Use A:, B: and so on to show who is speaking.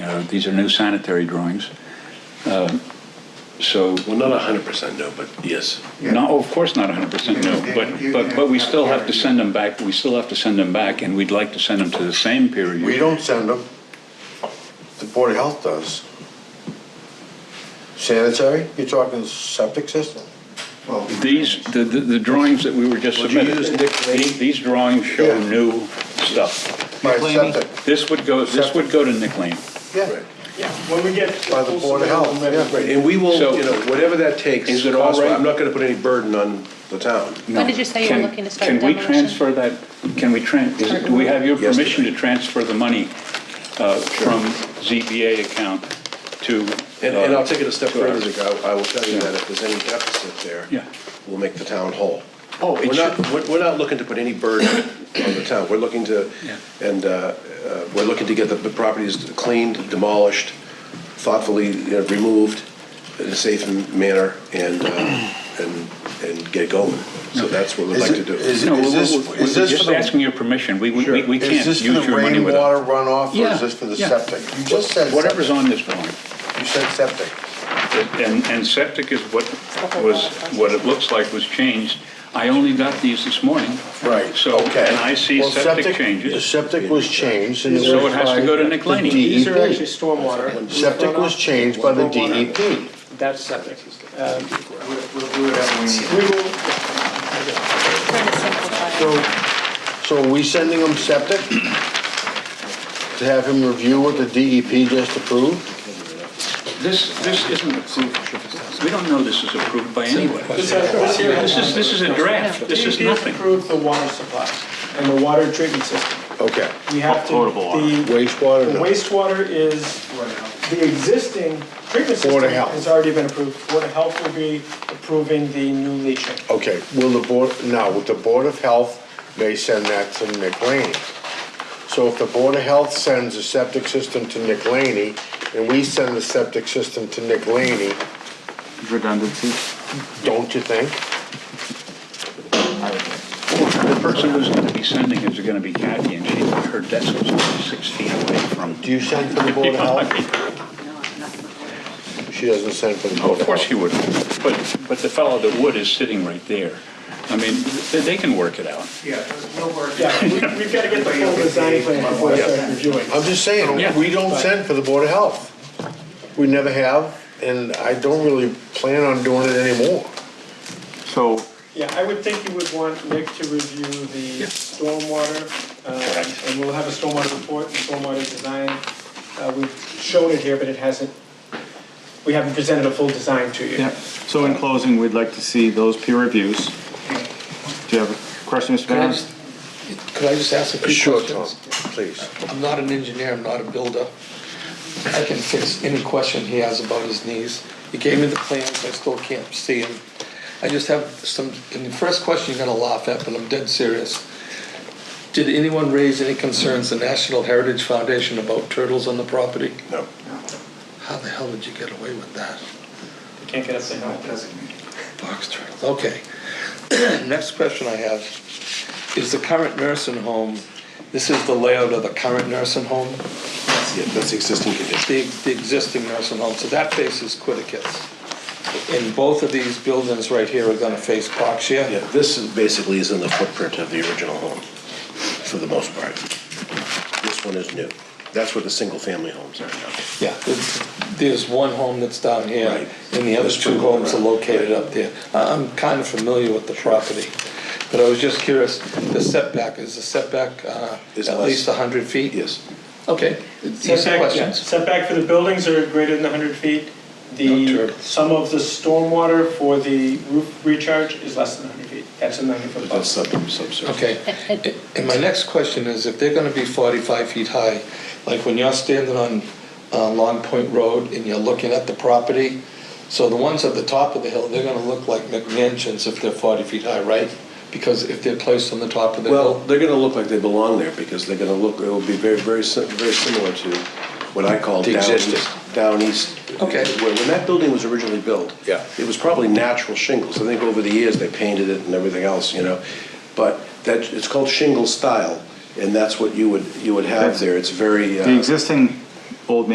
A: uh, these are new sanitary drawings. Uh, So,
B: Well, not hundred percent, no, but yes.
A: no, of course not 100% no, but, but, but we still have to send them back, we still have to send them back, and we'd like to send them to the same peer
C: We
A: review.
C: don't send them. The Board of Health does. Sanitary, you're talking septic system? Well,
A: These, the, E the the drawings that we were just
C: Would you
A: submitted,
C: use Dick Cheney?
A: the- these drawings show
C: Yeah.
A: new stuff.
C: By septic,
A: This would go, this would go to Nick Lane.
C: yeah,
D: When we get.
C: by the Board of Health, yeah.
B: And we will,
A: So-
B: you know, whatever that takes.
A: Is it all
B: cost-wise,
A: right?
B: I'm not gonna put any burden on the town.
A: No.
E: When did you say you were
A: Can-
E: looking to start
A: Can we
E: demolition?
A: transfer that, can we tran, is it- do we have your
B: Yes.
A: permission to transfer the money uh, from ZBA account to?
B: And, and I'll
A: uh,
B: take it a step
A: Sure.
B: further, Dick. I I will tell you that if there's any deficit there.
A: Yeah.
B: We'll make the town whole.
A: Oh, it
B: We're not,
A: should-
B: we're, we're not looking to put any burden on the town. We're looking to,
A: Yeah.
B: and, uh, uh, we're looking to get the, the properties cleaned, demolished, thoughtfully, you know, removed in a safe manner and, uh, and, and get going. So that's what we'd
C: Is
B: like to
C: it-
B: do.
C: is it-
A: No, we're-
C: this-
A: we're-
C: is
A: we're
C: this for
A: just
C: the-
A: asking your permission. We, we- we, we
C: Is
A: can't
C: this
A: use
C: for
A: your
C: the
A: money without.
C: rainwater runoff, or
A: Yeah,
C: is this for the
A: yeah.
C: septic? You just said
A: Whatever's
C: septic,
A: on this drawing.
C: you said septic.
A: And, and septic is what was, what it looks like was changed. I only got these this morning.
C: Right,
A: So,
C: okay.
A: and I see
C: Well,
A: septic
C: The
A: changes.
C: septic was changed. and
A: So
C: was
A: it has to
C: by
A: go to Nick
C: the
A: Laney.
D: These are
C: DEP.
D: actually stormwater.
C: Septic was changed by the E DEP.
D: That's septic.
E: Trying to simplify it.
C: So, so are we sending him septic? To have him review what the DEP just approved?
A: This, this isn't approved. We don't know this is approved by anybody. This is, this is a draft. This is nothing.
D: Approved the water supply and the water treatment system.
C: Okay.
D: We have to.
F: Potable water.
D: the- The
C: Wastewater, no.
D: wastewater is, the existing treatment system
C: Water health.
D: has already been approved. Water Health will be approving the new leaching.
C: Okay, will the board, now, with the Board of Health, they send that to Nick Laney. So if the Board of Health sends a septic system to Nick Laney, and we send the septic system to Nick Laney,
F: redundancy.
C: don't you think?
A: The person who's going to be sending is going to be Kathy, and she, her desk was only six feet away from.
C: Do you send for the Board of Health? She doesn't send for the
A: Oh,
C: Board of Health.
A: Of course he would, but, but the fellow that would is sitting right there. I mean, they- they can work it out.
G: Yeah, we'll work.
D: Yeah, we- we've got to get the full design plan before we start reviewing.
C: I'm just saying,
A: Yeah.
C: we don't send for the Board of Health. We never have, and I don't really plan on doing it anymore.
F: So
D: Yeah, I would think you would want Nick to review the stormwater, um, and we'll have a stormwater report, and stormwater design. Uh, We've shown it here, but it hasn't, we haven't presented a full design to you.
F: Yeah, so in closing, we'd like to see those peer reviews. Do you have a question, Mr.
H: Could I
F: Barron?
H: just- could I just ask a few
C: Sure, Tom,
H: questions?
C: please.
H: I'm not an engineer, I'm not a builder. I can fix any question he has about his knees. He gave me the plans, I still can't see them. I just have some, and the first question you're gonna laugh at, but I'm dead serious. Did anyone raise any concerns, the National Heritage Foundation, about turtles on the property?
B: No.
H: How the hell did you get away with that?
D: Can't get us to help.
H: Box turtles, okay. Next question I have is the current nursing home, this is the layout of the current nursing home?
B: Yeah, that's the existing condition.
H: the, the existing nursing home, so that faces Quiddicus. And both of these buildings right here are gonna face Berkshire.
B: Yeah, this is basically is in the footprint of the original home, for the most part. This one is new. That's where the single-family homes are now.
H: Yeah, there's, there's one home that's down here,
B: Right.
H: and the other
B: There's
H: two
B: two
H: homes are
B: around.
H: located up there. I- I'm kind of familiar with the property, but I was just curious, the setback, is the setback uh,
B: Is
H: at
B: less.
H: least 100 feet?
B: Yes.
H: Okay, these are
D: Setback- yeah,
H: questions.
D: Setback for the buildings are greater than 100 feet.
H: No
D: The,
H: turtles.
D: some of the stormwater for the roof recharge is less than 100 feet. That's a 90-foot
B: That's
D: buffer.
B: sub, subsurface.
H: Okay, A- and my next question is, if they're gonna be forty-five feet high, like when you're standing on, uh, Long Point Road and you're looking at the property, so the ones at the top of the hill, they're gonna look like McMansions if they're forty feet high, right? Because if they're placed on the top of the
B: Well,
H: hill.
B: they're gonna look like they belong there, because they're gonna look, it'll be very, very, si- very similar to what I call
H: The
B: down
H: existing.
B: east. Down east.
H: Okay.
B: When, when that building was originally built.
C: Yeah.
B: It was probably natural shingles. I think over the years, they painted it and everything else, you know? But that, it's called shingle style, and that's what you would, you would have there. It's very. uh,
F: The existing old